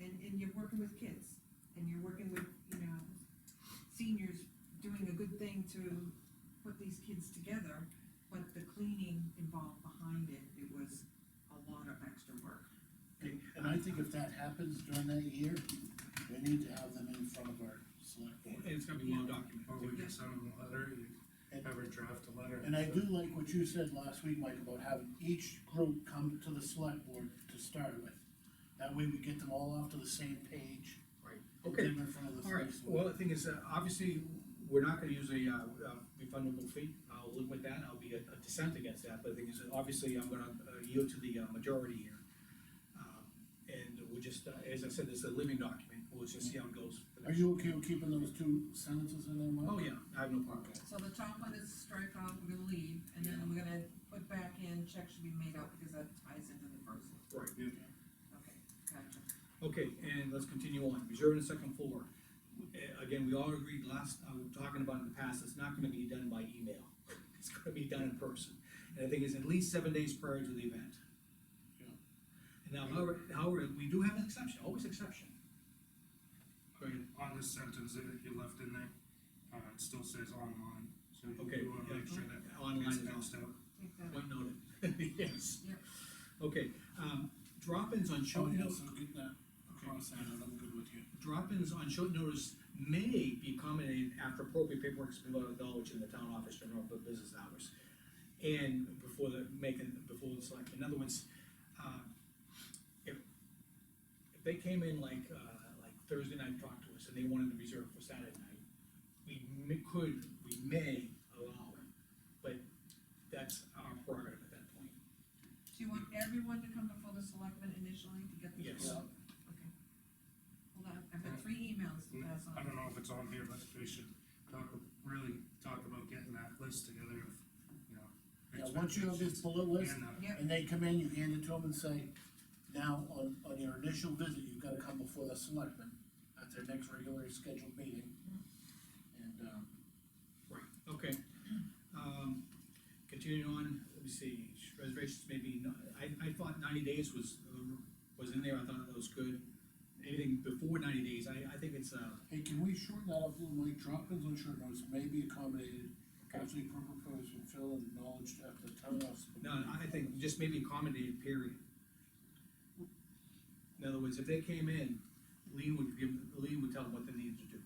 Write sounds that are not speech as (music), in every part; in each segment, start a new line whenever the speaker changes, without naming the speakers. and you're working with kids, and you're working with, you know, seniors doing a good thing to put these kids together, but the cleaning involved behind it, it was a lot of extra work.
Okay, And I think if that happens during that year, we need to have them in front of our select board.
And it's gonna be well documented.
Or we can send them a letter, you
And-
have her draft a letter.
And I do like what you said last week, Mike, about having each group come to the select board to start with. That way we get them all off to the same page.
Right.
and
Okay.
get them in front of the
All right,
select board.
well, the thing is, uh, obviously, we're not gonna use a, uh, uh, refundable fee, I'll live with that, I'll be a a dissent against that, but the thing is, obviously, I'm gonna uh, yield to the uh, majority here. Um, And we'll just, uh, as I said, it's a living document, we'll just see how it goes.
Are you okay with keeping those two sentences in there, Mike?
Oh, yeah, I have no problem.
So the top one is strike out, we're gonna leave, and then we're gonna put back in, check should be made out, because that ties into the first one.
Right.
Okay, gotcha.
Okay, and let's continue on, reserve and second floor. Uh, Again, we all agreed last, I was talking about in the past, it's not gonna be done by email, (laughs) it's gonna be done in person. And I think it's at least seven days prior to the event.
Yeah.
And now, however, however, we do have an exception, always exception.
I mean, on this sentence that you left in there, uh, it still says online, so
Okay,
you wanna make sure that
Online
it's
is also.
fenced out.
Take that.
Point noted, (laughs) yes.
Yep.
Okay, um, drop-ins on
Oh,
short
yeah,
notice,
so get that across, I know, I'm good with you.
drop-ins on short notice may be accommodated after appropriate paperwork is below knowledge in the town office during normal business hours. And before the, making, before the select, in other words, uh, if, if they came in like, uh, like Thursday night, talked to us, and they wanted to reserve for Saturday night, we may- could, we may allow it, but that's our prerogative at that point.
Do you want everyone to come before the selectmen initially to get the?
Yes.
Okay. Hold on, I've got three emails to pass
I
on.
don't know if it's on here, but we should talk, really talk about getting that list together of, you know.
Yeah, once you have this
expectations
bullet list,
and, uh,
Yep,
and they come in, you hand it to them and say, now, on, on your initial visit, you've gotta come before the selectmen at their next regularly scheduled meeting. And, um,
Right, okay. Um, continuing on, let me see, reservations maybe, I, I thought ninety days was, uh, was in there, I thought that was good. Anything before ninety days, I, I think it's, uh,
hey, can we shorten that up a little, Mike, drop-ins on short notice may be accommodated, actually proposed from Phil and acknowledged at the town office.
no, I think just maybe accommodated period. In other words, if they came in, Lee would give, Lee would tell them what they needed to do.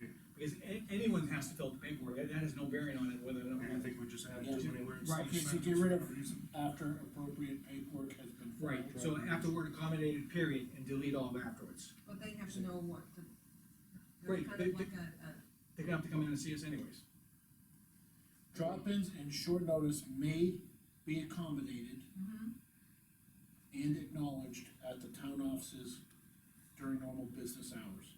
Yeah.
Because a- anyone has to fill out the paperwork, that that has no bearing on it, whether or
I
not.
think we just added too many words.
Right,
Okay, so get rid of after appropriate paperwork has been filed.
Right, so afterward accommodated period and delete all afterwards.
but they have to know what to. they're
Right,
kind
they-
of like a, a,
They're gonna have to come in and see us anyways.
Drop-ins and short notice may be accommodated
Mm-hmm.
mhm,
and acknowledged at the town offices during normal business hours.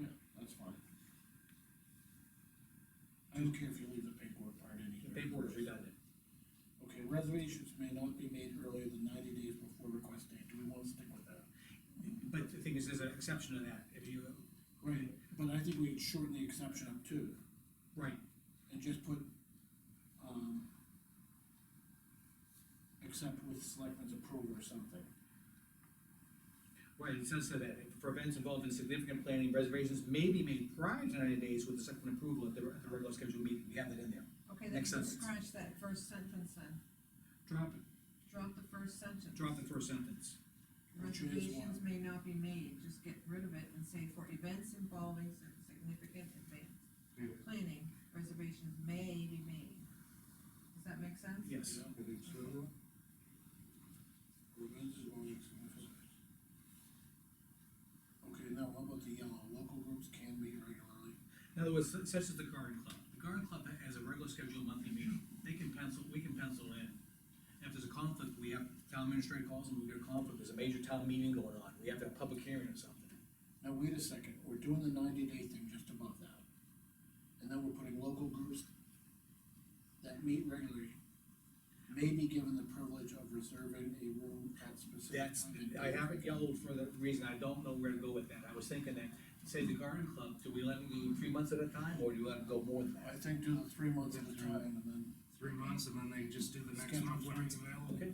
Yeah, that's fine. I don't care if you leave the paperwork part in
The
here.
paperwork's redundant.
Okay, reservations may not be made earlier than ninety days before request date, do we wanna stick with that?
But the thing is, there's an exception to that, if you,
Right, but I think we could shorten the exception up too,
right,
and just put, um, except with selectmen's approval or something.
right, it says so that, for events involved in significant planning, reservations may be made prior to ninety days with the second approval at the, at the regular scheduled meeting, we have that in there.
okay, then
Next
you
sentence.
scratch that first sentence then,
Drop it,
drop the first sentence.
drop the first sentence.
Which is
Reservations
what?
may not be made, just get rid of it and say for events involving sig- significant advance
Yeah,
planning, reservations may be made. Does that make sense?
Yes,
I think so.
Okay, now what about the yellow, local groups can meet regularly?
in other words, such as the garden club, the garden club has a regular scheduled monthly meeting, they can pencil, we can pencil in. If there's a conflict, we have, town administrator calls and we get a conflict, there's a major town meeting going on, we have to have a public hearing or something.
Now, wait a second, we're doing the ninety day thing just above that. And then we're putting local groups that meet regularly may be given the privilege of reserving a room at specific.
That's,
time and
I
date.
haven't yellowed for the reason, I don't know where to go with that, I was thinking that, say the garden club, do we let them go three months at a time, or do we let them go more than that?
I think do the three months at a time and then.
Three months and then they just do the next
Schedule
month when it's available.
Okay.